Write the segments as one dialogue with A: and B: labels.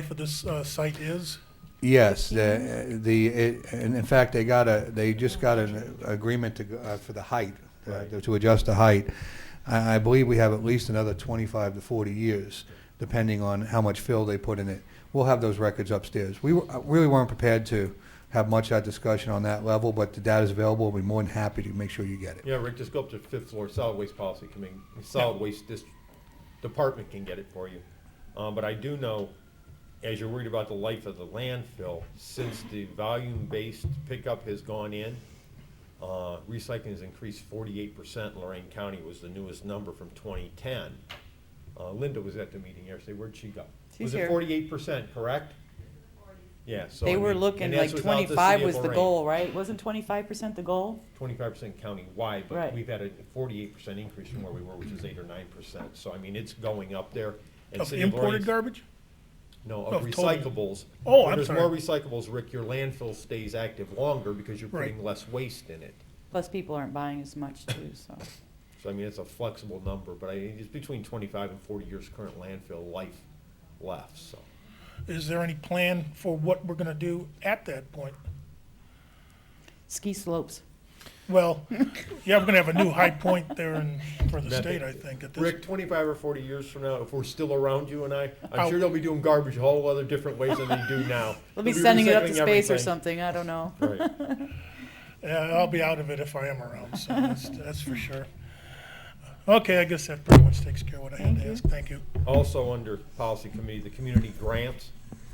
A: for this uh, site is?
B: Yes, the, the, it- and in fact, they got a, they just got an agreement to, go- uh, for the height, uh,
C: Right.
B: to adjust the height. I, I believe we have at least another twenty-five to forty years, depending on how much fill they put in it. We'll have those records upstairs. We were- uh, really weren't prepared to have much of that discussion on that level, but the data's available, we'll be more than happy to make sure you get it.
C: Yeah, Rick, just go up to the fifth floor, solid waste policy committee, solid waste dis- department can get it for you. Um, but I do know, as you're worried about the life of the landfill, since the volume-based pickup has gone in, uh, recycling has increased forty-eight percent, Lorraine County was the newest number from twenty-ten. Uh, Linda was at the meeting yesterday, where'd she go?
D: She's
C: Was it
D: here.
C: forty-eight percent, correct? Yeah, so. I
D: They were
C: mean,
D: looking
C: and that's
D: like
C: without the
D: twenty-five
C: city of
D: was the
C: Lorraine.
D: goal, right? Wasn't twenty-five percent the goal?
C: twenty-five percent countywide, but
D: Right.
C: we've had a forty-eight percent increase from where we were, which is eight or nine percent. So I mean, it's going up there. And
A: Of
C: City of
A: imported
C: Lorraine's-
A: garbage?
C: No,
A: no,
C: of
A: of total.
C: recyclables.
A: Oh,
C: When
A: I'm sorry.
C: There's more recyclables, Rick, your landfill stays active longer because you're putting
A: Right.
C: less waste in it.
D: Plus, people aren't buying as much too, so.
C: So I mean, it's a flexible number, but I, it's between twenty-five and forty years current landfill life left, so.
A: Is there any plan for what we're gonna do at that point?
D: Ski slopes.
A: Well, yeah, we're gonna have a new high point there in, for the
C: That-
A: state, I think, at this.
C: Rick, twenty-five or forty years from now, if we're still around, you and I, I'm
A: Ow.
C: sure they'll be doing garbage a whole other different ways than they do now.
D: They'll be
C: They'll
D: sending it up to
C: recycling
D: space or
C: everything.
D: something, I don't know.
C: Right.
A: Yeah, I'll be out of it if I am around, so that's, that's for sure. Okay, I guess that pretty much takes care of what I had to ask. Thank you.
C: Also, under policy committee, the community grants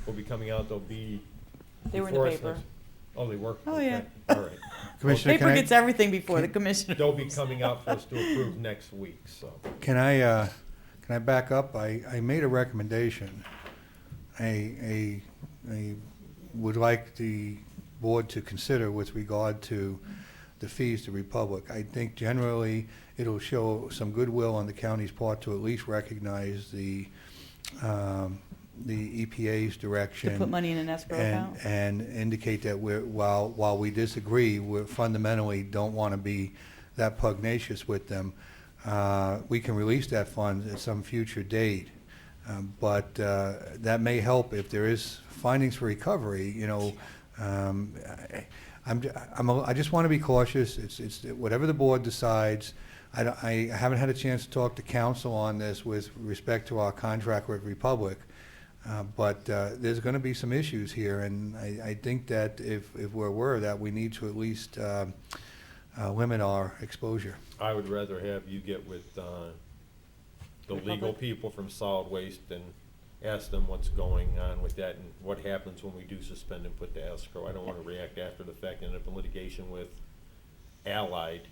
C: will be coming out, they'll be.
D: They were in the
C: before us
D: paper.
C: next- Oh, they were?
D: Oh,
C: Okay.
D: yeah.
C: All right.
B: Commissioner, can
D: Paper
B: I-
D: gets everything before the commissioner.
C: They'll be coming out for us to approve next week, so.
B: Can I, uh, can I back up? I, I made a recommendation. I, I, I would like the board to consider with regard to the fees to Republic. I think generally it'll show some goodwill on the county's part to at least recognize the, um, the EPA's direction.
D: To put money in an escrow
B: And,
D: account.
B: and indicate that we're, while, while we disagree, we fundamentally don't want to be that pugnacious with them. Uh, We can release that fund at some future date, Um, but uh, that may help if there is findings for recovery, you know. Um, I- I'm, j- I'm, a- I just want to be cautious, it's, it's, whatever the board decides. I, don't- I haven't had a chance to talk to council on this with respect to our contract with Republic. Uh, But uh, there's going to be some issues here, and I, I think that if, if we're aware of that, we need to at least um, uh, limit our exposure.
C: I would rather have you get with, uh, the legal
D: Republic?
C: people from solid waste and ask them what's going on with that and what happens when we do suspend and put the escrow. I don't wanna react after the fact and end up in litigation with Allied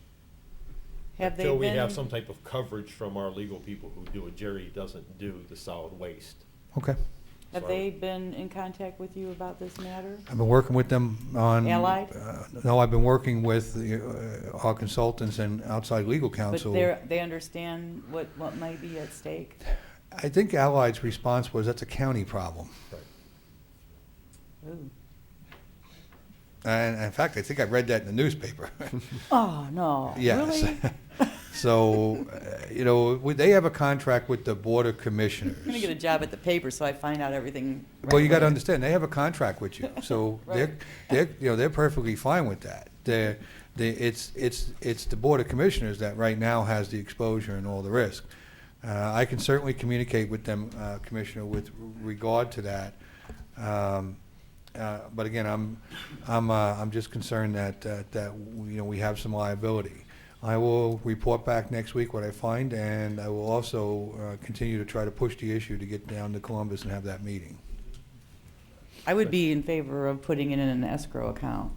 D: Have they
C: Until we have
D: been,
C: some type of coverage from our legal people who do it, Jerry doesn't do the solid waste.
B: Okay.
D: have they been in contact with you about this matter?
B: I've been working with them on.
D: Allied?
B: uh, No, I've been working with the, uh, our consultants and outside legal
D: But
B: counsel.
D: they're, they understand what, what might be at stake?
B: I think Allied's response was, that's a county problem.
D: Ooh.
B: And in fact, I think I read that in the newspaper.
D: Oh, no,
B: Yes.
D: really?
B: So, uh, you know, would they have a contract with the Board of Commissioners.
D: I'm gonna get a job at the paper so I find out everything.
B: Well, you got to
D: right away.
B: understand, they have a contract with you, so they're,
D: Right.
B: they're, you know, they're perfectly fine with that. They're, they, it's, it's, it's the Board of Commissioners that right now has the exposure and all the risk. Uh, I can certainly communicate with them, uh, Commissioner, with regard to that. Um, uh, but again, I'm, I'm, uh, I'm just concerned that, that, that, you know, we have some liability. I will report back next week what I find, and I will also, uh, continue to try to push the issue to get down to Columbus and have that meeting.
D: I would be in favor of putting it in an escrow account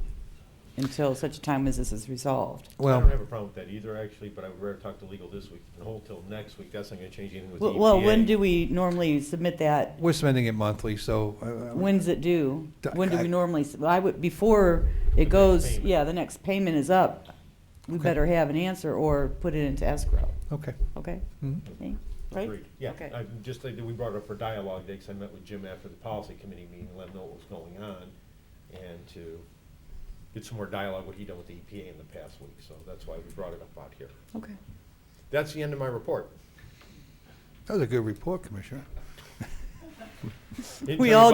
D: until such time as this is resolved.
C: I don't
B: Well,
C: have a problem with that either, actually, but I would rather talk to legal this week and hold till next week. That's not gonna change anything with the E
D: Well, well, when
C: EPA.
D: do we normally submit that?
B: we're spending it monthly, so uh,
D: When's it due?
B: The-
D: When do
B: I-
D: we normally, s- well, I would, before it goes,
C: payment.
D: yeah, the next payment is up, we
B: Okay.
D: better have an answer or put it into escrow,
B: okay.
D: okay?
B: Mhm.
D: Me? Right?
C: Agreed. Yeah,
D: Okay.
C: I, just like, that we brought it up for dialogue day, 'cause I met with Jim after the policy committee meeting, let him know what was going on, and to get some more dialogue, what he done with the EPA in the past week, so that's why we brought it up out here.
D: Okay.
C: That's the end of my report.
B: That was a good report, Commissioner.
C: We all